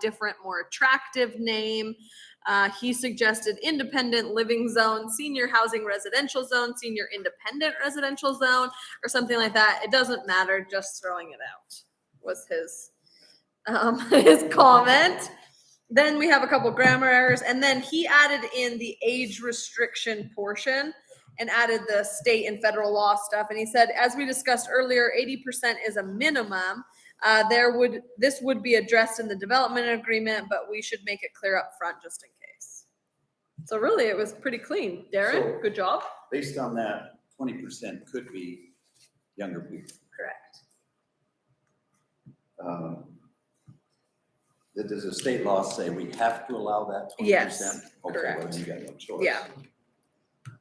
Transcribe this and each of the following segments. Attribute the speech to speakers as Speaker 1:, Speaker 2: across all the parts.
Speaker 1: different, more attractive name. Uh, he suggested independent living zone, senior housing residential zone, senior independent residential zone, or something like that. It doesn't matter, just throwing it out was his um, his comment. Then we have a couple grammar errors, and then he added in the age restriction portion and added the state and federal law stuff. And he said, as we discussed earlier, 80% is a minimum. Uh, there would, this would be addressed in the development agreement, but we should make it clear up front just in case. So really, it was pretty clean. Darren,
Speaker 2: So-
Speaker 1: good job.
Speaker 2: Based on that, twenty percent could be younger people.
Speaker 1: Correct.
Speaker 2: Um, That does the state law say we have to allow that twenty
Speaker 1: Yes,
Speaker 2: percent?
Speaker 1: correct.
Speaker 2: You got no choice.
Speaker 1: Yeah.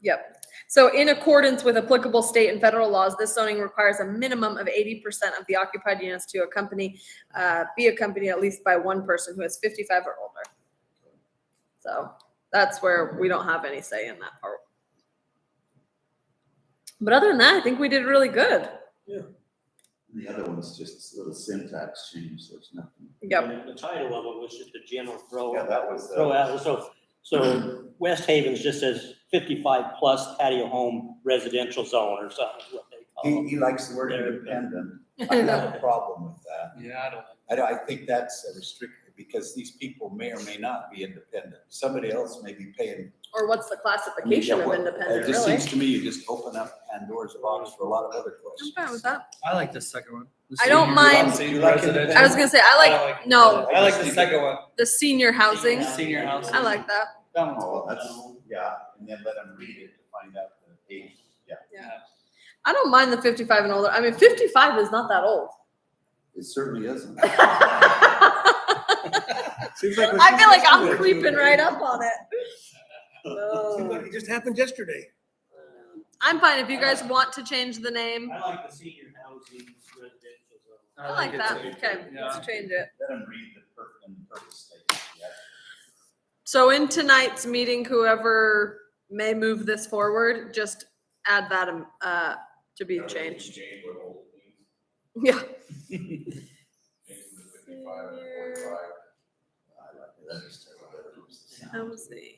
Speaker 1: Yep. So in accordance with applicable state and federal laws, this zoning requires a minimum of eighty percent of the occupied units to accompany, uh, be accompanied at least by one person who is fifty-five or older. So that's where we don't have any say in that part. But other than that, I think we did really good.
Speaker 2: And The other one's just a little syntax change, there's nothing.
Speaker 1: Yep.
Speaker 3: And The title of it was just a general throw,
Speaker 2: Yeah, that was, uh,
Speaker 3: throw out, so, so West Haven's just says fifty-five plus patio home residential zone or something, is what they
Speaker 2: He,
Speaker 3: call
Speaker 2: he likes the word
Speaker 3: There.
Speaker 2: independent. I have a problem with that.
Speaker 4: Yeah, I don't.
Speaker 2: I don't, I think that's a restricted, because these people may or may not be independent. Somebody else may be paying.
Speaker 1: Or what's the classification of independent,
Speaker 2: It just
Speaker 1: really?
Speaker 2: seems to me you just open up Pandora's box for a lot of other
Speaker 1: I'm
Speaker 2: questions.
Speaker 1: fine with that.
Speaker 4: I like the second one. The
Speaker 1: I don't
Speaker 4: senior-
Speaker 1: mind-
Speaker 4: senior
Speaker 2: You like
Speaker 4: residential.
Speaker 2: independent?
Speaker 1: I was gonna say, I like no.
Speaker 4: I like the second one.
Speaker 2: Uh,
Speaker 1: the senior
Speaker 3: it.
Speaker 1: Mm-hmm. housing.
Speaker 4: Senior housing.
Speaker 1: I like that.
Speaker 4: That one's
Speaker 2: Oh,
Speaker 4: cool.
Speaker 2: that's, yeah, and then let them read it to find out the age, yeah.
Speaker 1: I don't mind the 55 and older. I mean, 55 is not that old.
Speaker 2: It certainly isn't.
Speaker 5: Seems like.
Speaker 1: I feel like I'm creeping right up on it. No.
Speaker 5: It just happened yesterday.
Speaker 1: I'm fine. If you guys want to change the name,
Speaker 3: I like the senior housing residential zone.
Speaker 1: I like
Speaker 4: it
Speaker 1: that.
Speaker 4: too.
Speaker 1: Okay,
Speaker 4: Yeah.
Speaker 1: let's change it.
Speaker 2: Let them read the purpose and purpose statement, yeah.
Speaker 1: So in tonight's meeting, whoever may move this forward, just add that um, uh, to be changed. Yeah. Senior
Speaker 2: I like it, that's just terrible.
Speaker 1: housing.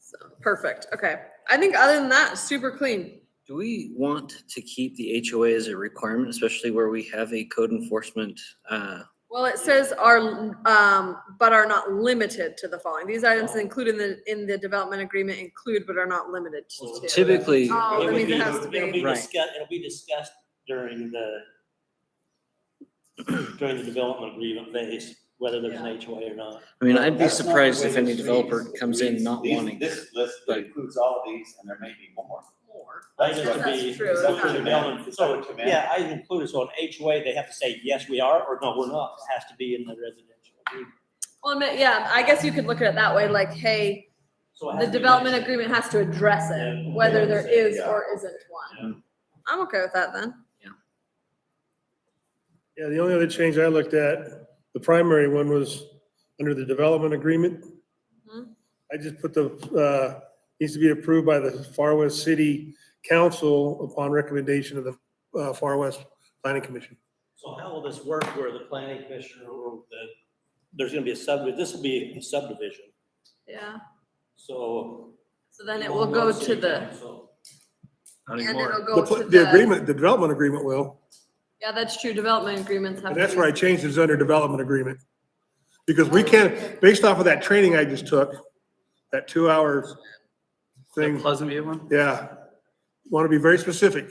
Speaker 1: So, perfect. Okay. I think other than that, super clean.
Speaker 6: Do we want to keep the HOA as a requirement, especially where we have a code enforcement? uh,
Speaker 1: Well, it says are, um, but are not limited to the following. These items included in the, in the development agreement include but are not limited to.
Speaker 6: Typically,
Speaker 1: Oh,
Speaker 3: It
Speaker 1: that
Speaker 3: would
Speaker 1: means
Speaker 3: be-
Speaker 1: it has to
Speaker 3: It'll
Speaker 1: be.
Speaker 3: be
Speaker 6: Right.
Speaker 3: discussed, it'll be discussed during the, during the development agreement phase, whether there's an HOA or not.
Speaker 6: I mean, I'd be
Speaker 2: That's not the
Speaker 6: surprised
Speaker 2: way
Speaker 6: if
Speaker 2: it
Speaker 6: any
Speaker 2: reads.
Speaker 6: developer
Speaker 2: It
Speaker 6: comes in
Speaker 2: reads
Speaker 6: not
Speaker 2: these-
Speaker 6: wanting.
Speaker 2: This list that
Speaker 6: but-
Speaker 2: includes all of these, and there may be more.
Speaker 1: More.
Speaker 3: I think it would
Speaker 1: That's
Speaker 3: be-
Speaker 1: true,
Speaker 3: so
Speaker 1: it's not-
Speaker 3: development- So,
Speaker 2: It's up to them.
Speaker 3: yeah, I included, so an HOA, they have to say, yes, we are, or no, we're not, it has to be in the residential. agreement.
Speaker 1: Well, I mean, yeah, I guess you could look at it that way, like, hey,
Speaker 3: So it has
Speaker 1: the
Speaker 3: to be
Speaker 1: development
Speaker 3: mentioned.
Speaker 1: agreement has to address it,
Speaker 3: Yeah.
Speaker 1: whether there is
Speaker 2: Yeah.
Speaker 1: or isn't one. I'm okay with that then.
Speaker 5: Yeah, the only other change I looked at, the primary one was under the development agreement.
Speaker 1: Mhm.
Speaker 5: I just put the, uh, needs to be approved by the Far West City Council upon recommendation of the, uh, Far West Planning Commission.
Speaker 3: So how will this work where the planning commissioner or the, there's gonna be a subdivision, this will be a subdivision,
Speaker 1: Yeah,
Speaker 3: so.
Speaker 1: so then it will go to the,
Speaker 4: Not
Speaker 1: and
Speaker 4: anymore.
Speaker 1: it'll go
Speaker 5: The-
Speaker 1: to
Speaker 5: The
Speaker 1: the,
Speaker 5: agreement, the development agreement will,
Speaker 1: yeah, that's true, development agreements have.
Speaker 5: and
Speaker 1: to
Speaker 5: that's
Speaker 1: be-
Speaker 5: where I changed it, it's under development agreement. Because we can't, based off of that training I just took, that two-hour
Speaker 4: The
Speaker 5: thing.
Speaker 4: Pleasant View one?
Speaker 5: Yeah, want to be very specific.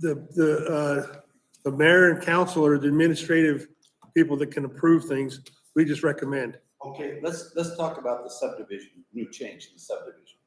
Speaker 5: The, the, uh, the mayor and council are the administrative people that can approve things. We just recommend.
Speaker 2: Okay, let's, let's talk about the subdivision, new change in the subdivision.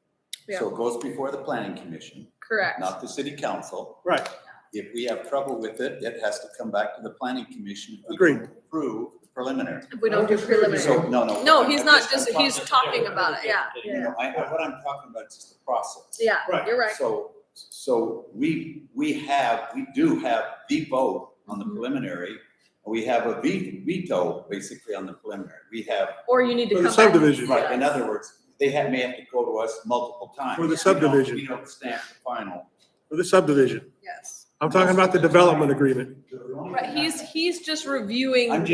Speaker 1: Yeah,
Speaker 2: So it goes before the planning commission,
Speaker 1: correct.
Speaker 2: not the city council.
Speaker 5: Right.
Speaker 2: If we have trouble with it, it has to come back to the planning commission. if we
Speaker 5: Agreed.
Speaker 2: don't Approve the preliminary.
Speaker 1: If we don't do preliminary.
Speaker 2: So, no, no.
Speaker 1: No,
Speaker 2: I'm-
Speaker 1: he's
Speaker 2: I'm
Speaker 1: not
Speaker 2: I'm
Speaker 1: just- he's talking about it, yeah.
Speaker 2: You know, I, I- what I'm talking about is just the process.
Speaker 1: Yeah,
Speaker 5: Right.
Speaker 1: you're right.
Speaker 2: So, so we, we have, we do have the vote on the
Speaker 1: Mhm.
Speaker 2: preliminary. We have a ve- veto basically on the preliminary. We have,
Speaker 1: Or you need to come
Speaker 5: For the
Speaker 1: back. and
Speaker 5: subdivision.
Speaker 1: see
Speaker 2: right, in
Speaker 1: us.
Speaker 2: other words, they have, may have to go to us multiple times.
Speaker 5: For
Speaker 2: We
Speaker 5: the
Speaker 2: don't-
Speaker 5: subdivision.
Speaker 2: We don't stamp the final.
Speaker 5: For the subdivision,
Speaker 1: Yes,
Speaker 5: I'm talking about the development agreement.
Speaker 2: Right, he's, he's just reviewing.
Speaker 1: I'm